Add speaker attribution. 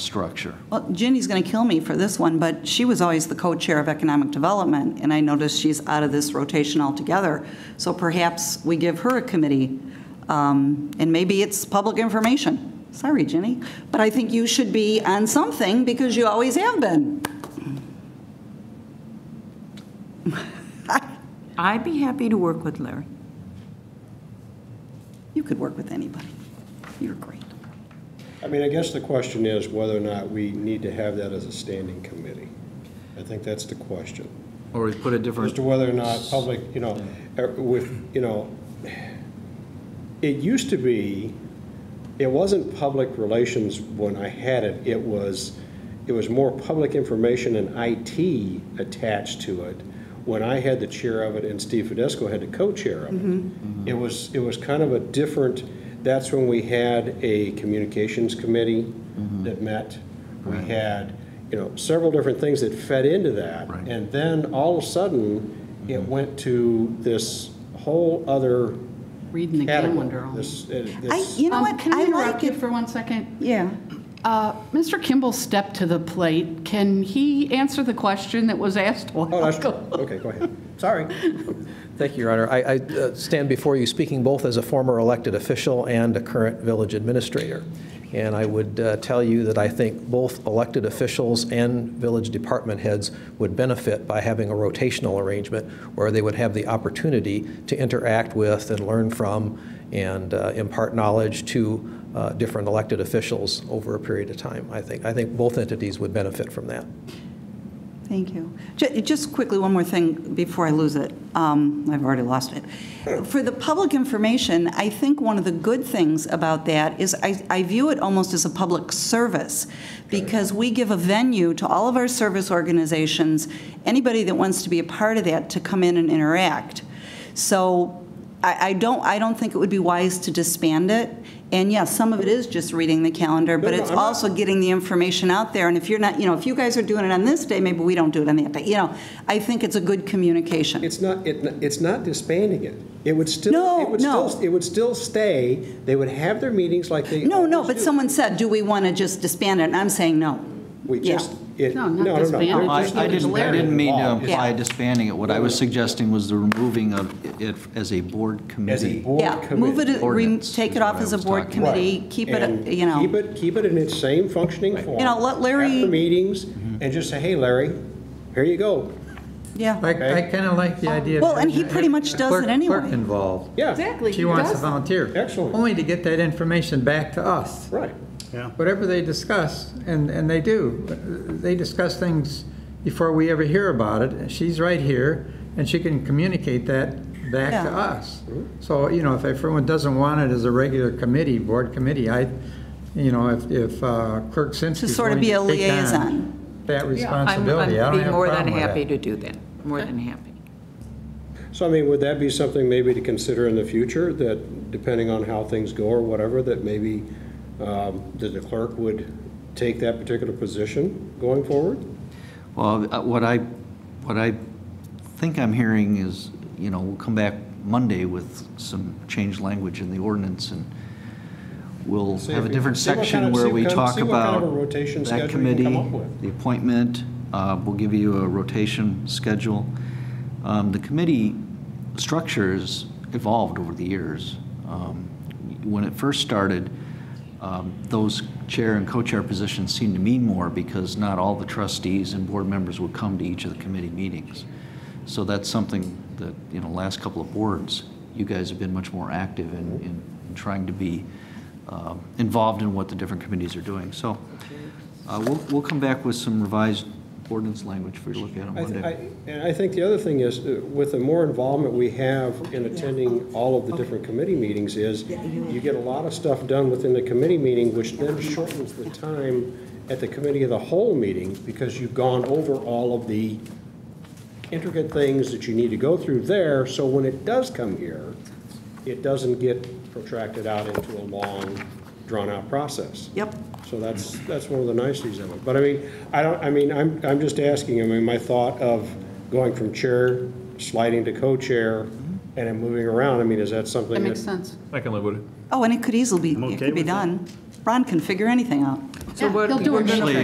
Speaker 1: structure.
Speaker 2: Well, Ginny's going to kill me for this one, but she was always the co-chair of Economic Development, and I noticed she's out of this rotation altogether. So perhaps we give her a committee, um, and maybe it's public information. Sorry, Ginny, but I think you should be on something because you always have been.
Speaker 3: I'd be happy to work with Larry.
Speaker 2: You could work with anybody. You're great.
Speaker 4: I mean, I guess the question is whether or not we need to have that as a standing committee. I think that's the question.
Speaker 1: Or we put a
Speaker 4: As
Speaker 1: different,
Speaker 4: to whether or not public, you know, er, with, you know, it used to be, it wasn't public relations when I had it. It was, it was more public information and IT attached to it when I had the chair of it and Steve Fidesco had the co-chair of it. It was, it was kind of a different, that's when we had a communications committee that met. We had, you know, several different things that fed into that.
Speaker 1: Right.
Speaker 4: And then all of a sudden, it went to this whole other
Speaker 5: Reading the calendar.
Speaker 4: category.
Speaker 5: all.
Speaker 4: This, uh,
Speaker 2: I,
Speaker 4: this,
Speaker 2: you know
Speaker 5: Um,
Speaker 2: what?
Speaker 5: Can
Speaker 2: I
Speaker 5: I
Speaker 2: like
Speaker 5: interrupt you
Speaker 2: it.
Speaker 5: for one second?
Speaker 2: Yeah.
Speaker 5: Uh, Mr. Kimball stepped to the plate. Can he answer the question that was asked a
Speaker 4: oh,
Speaker 5: while
Speaker 4: that's,
Speaker 5: ago?
Speaker 4: okay, go ahead.
Speaker 6: Sorry. Thank you, Your Honor. I I, uh, stand before you speaking both as a former elected official and a current village administrator. And I would uh, tell you that I think both elected officials and village department heads would benefit by having a rotational arrangement where they would have the opportunity to interact with and learn from and uh, impart knowledge to uh, different elected officials over a period of time. I think, I think both entities would benefit from that.
Speaker 2: Thank you. Ju- Just quickly, one more thing before I lose it. Um, I've already lost it. For the public information, I think one of the good things about that is I I view it almost as a public service, because we give a venue to all of our service organizations, anybody that wants to be a part of that, to come in and interact. So I I don't, I don't think it would be wise to disband it. And yes, some of it is just reading the calendar, but
Speaker 4: No, no,
Speaker 2: it's
Speaker 4: I'm not-
Speaker 2: also getting the information out there, and if you're not, you know, if you guys are doing it on this day, maybe we don't do it on that day, you know, I think it's a good communication.
Speaker 4: It's not, it, it's not disbanding it. It would still.
Speaker 2: No,
Speaker 4: it would
Speaker 2: no.
Speaker 4: still- It would still stay, they would have their meetings like they.
Speaker 2: No, no,
Speaker 4: always
Speaker 2: but
Speaker 4: do.
Speaker 2: someone said, do we want to just disband it, and I'm saying no.
Speaker 4: We
Speaker 2: yeah.
Speaker 4: just, it,
Speaker 5: No,
Speaker 4: no,
Speaker 5: not
Speaker 4: no, no.
Speaker 5: disbanded,
Speaker 4: We're
Speaker 1: I
Speaker 4: just
Speaker 1: I
Speaker 4: not
Speaker 1: didn't, I
Speaker 4: declaring
Speaker 1: didn't mean to
Speaker 4: law.
Speaker 1: imply
Speaker 2: Yeah.
Speaker 1: disbanding it. What I was suggesting was the removing of it as a board
Speaker 4: As a
Speaker 1: committee.
Speaker 4: board
Speaker 2: Yeah,
Speaker 4: committee.
Speaker 2: move it, re-
Speaker 1: Ordinance
Speaker 2: take
Speaker 1: is
Speaker 2: it
Speaker 1: what
Speaker 2: off
Speaker 1: I
Speaker 2: as a
Speaker 1: was
Speaker 2: board
Speaker 1: talking about.
Speaker 2: committee, keep
Speaker 4: And
Speaker 2: it, you know.
Speaker 4: Keep it, keep it in its same functioning form.
Speaker 2: You know, let Larry-
Speaker 4: After meetings, and just say, hey, Larry, here you go.
Speaker 2: Yeah,
Speaker 7: I, I kind of like the idea. of
Speaker 2: Well, and he
Speaker 7: having a
Speaker 2: pretty much does
Speaker 7: clerk-
Speaker 2: it anyway.
Speaker 7: Clerk involved.
Speaker 4: Yeah.
Speaker 5: Exactly.
Speaker 7: She
Speaker 5: he
Speaker 7: wants to
Speaker 5: does.
Speaker 7: volunteer.
Speaker 4: Excellent.
Speaker 7: Only to get that information back to us.
Speaker 4: Right.
Speaker 7: Whatever they discuss, and, and they do, uh, they discuss things before we ever hear about it. She's right here, and she can communicate that back
Speaker 2: Yeah.
Speaker 7: to us. So, you know, if everyone doesn't want it as a regular committee, board committee, I, you know, if, if uh, Clerk
Speaker 2: To
Speaker 7: Simsky's
Speaker 2: sort of
Speaker 7: willing to
Speaker 2: be
Speaker 7: take
Speaker 2: a
Speaker 7: on
Speaker 2: liaison.
Speaker 7: that
Speaker 3: I'm-
Speaker 7: responsibility, I
Speaker 3: I'd
Speaker 7: don't
Speaker 3: be
Speaker 7: have a
Speaker 3: more than
Speaker 7: problem with
Speaker 3: happy
Speaker 7: that.
Speaker 3: to do that, more than happy.
Speaker 4: So I mean, would that be something maybe to consider in the future, that depending on how things go or whatever, that maybe um, that the clerk would take that particular position going forward?
Speaker 1: Well, uh, what I, what I think I'm hearing is, you know, we'll come back Monday with some changed language in the ordinance, and we'll
Speaker 4: See
Speaker 1: have
Speaker 4: if
Speaker 1: a
Speaker 4: we-
Speaker 1: different
Speaker 4: see what kind
Speaker 1: section
Speaker 4: of-
Speaker 1: where
Speaker 4: see
Speaker 1: we
Speaker 4: what kind-
Speaker 1: talk
Speaker 4: see what kind
Speaker 1: about
Speaker 4: of a rotation
Speaker 1: that
Speaker 4: schedule we can
Speaker 1: committee,
Speaker 4: come up with.
Speaker 1: the appointment, uh, we'll give you a rotation schedule. Um, The committee structures evolved over the years. Um, When it first started, um, those chair and co-chair positions seemed to mean more because not all the trustees and board members would come to each of the committee meetings. So that's something that, you know, last couple of boards, you guys have been much more active in, in in trying to be um, involved in what the different committees are doing. So uh, we'll, we'll come back with some revised ordinance language for you to look at on
Speaker 4: I th-
Speaker 1: Monday.
Speaker 4: I- And I think the other thing is, uh, with the more involvement we have in attending all of the different committee meetings is, you get a lot of stuff done within the committee meeting, which then shortens the time at the committee of the whole meeting, because you've gone over all of the intricate things that you need to go through there, so when it does come here, it doesn't get protracted out into a long, drawn-out process.
Speaker 2: Yep.
Speaker 4: So that's, that's one of the niceties of it. But I mean, I don't, I mean, I'm, I'm just asking, I mean, my thought of going from chair, sliding to co-chair, and then moving around, I mean, is that something
Speaker 5: That
Speaker 4: that?
Speaker 5: makes sense.
Speaker 8: I can live with it.
Speaker 2: Oh, and it could easily be, it
Speaker 8: okay
Speaker 2: could be
Speaker 8: with that.
Speaker 2: done. Ron can figure anything out.
Speaker 9: So
Speaker 10: Yeah,
Speaker 9: what-
Speaker 10: he'll do
Speaker 9: we're
Speaker 10: it.
Speaker 9: gonna-
Speaker 5: Actually,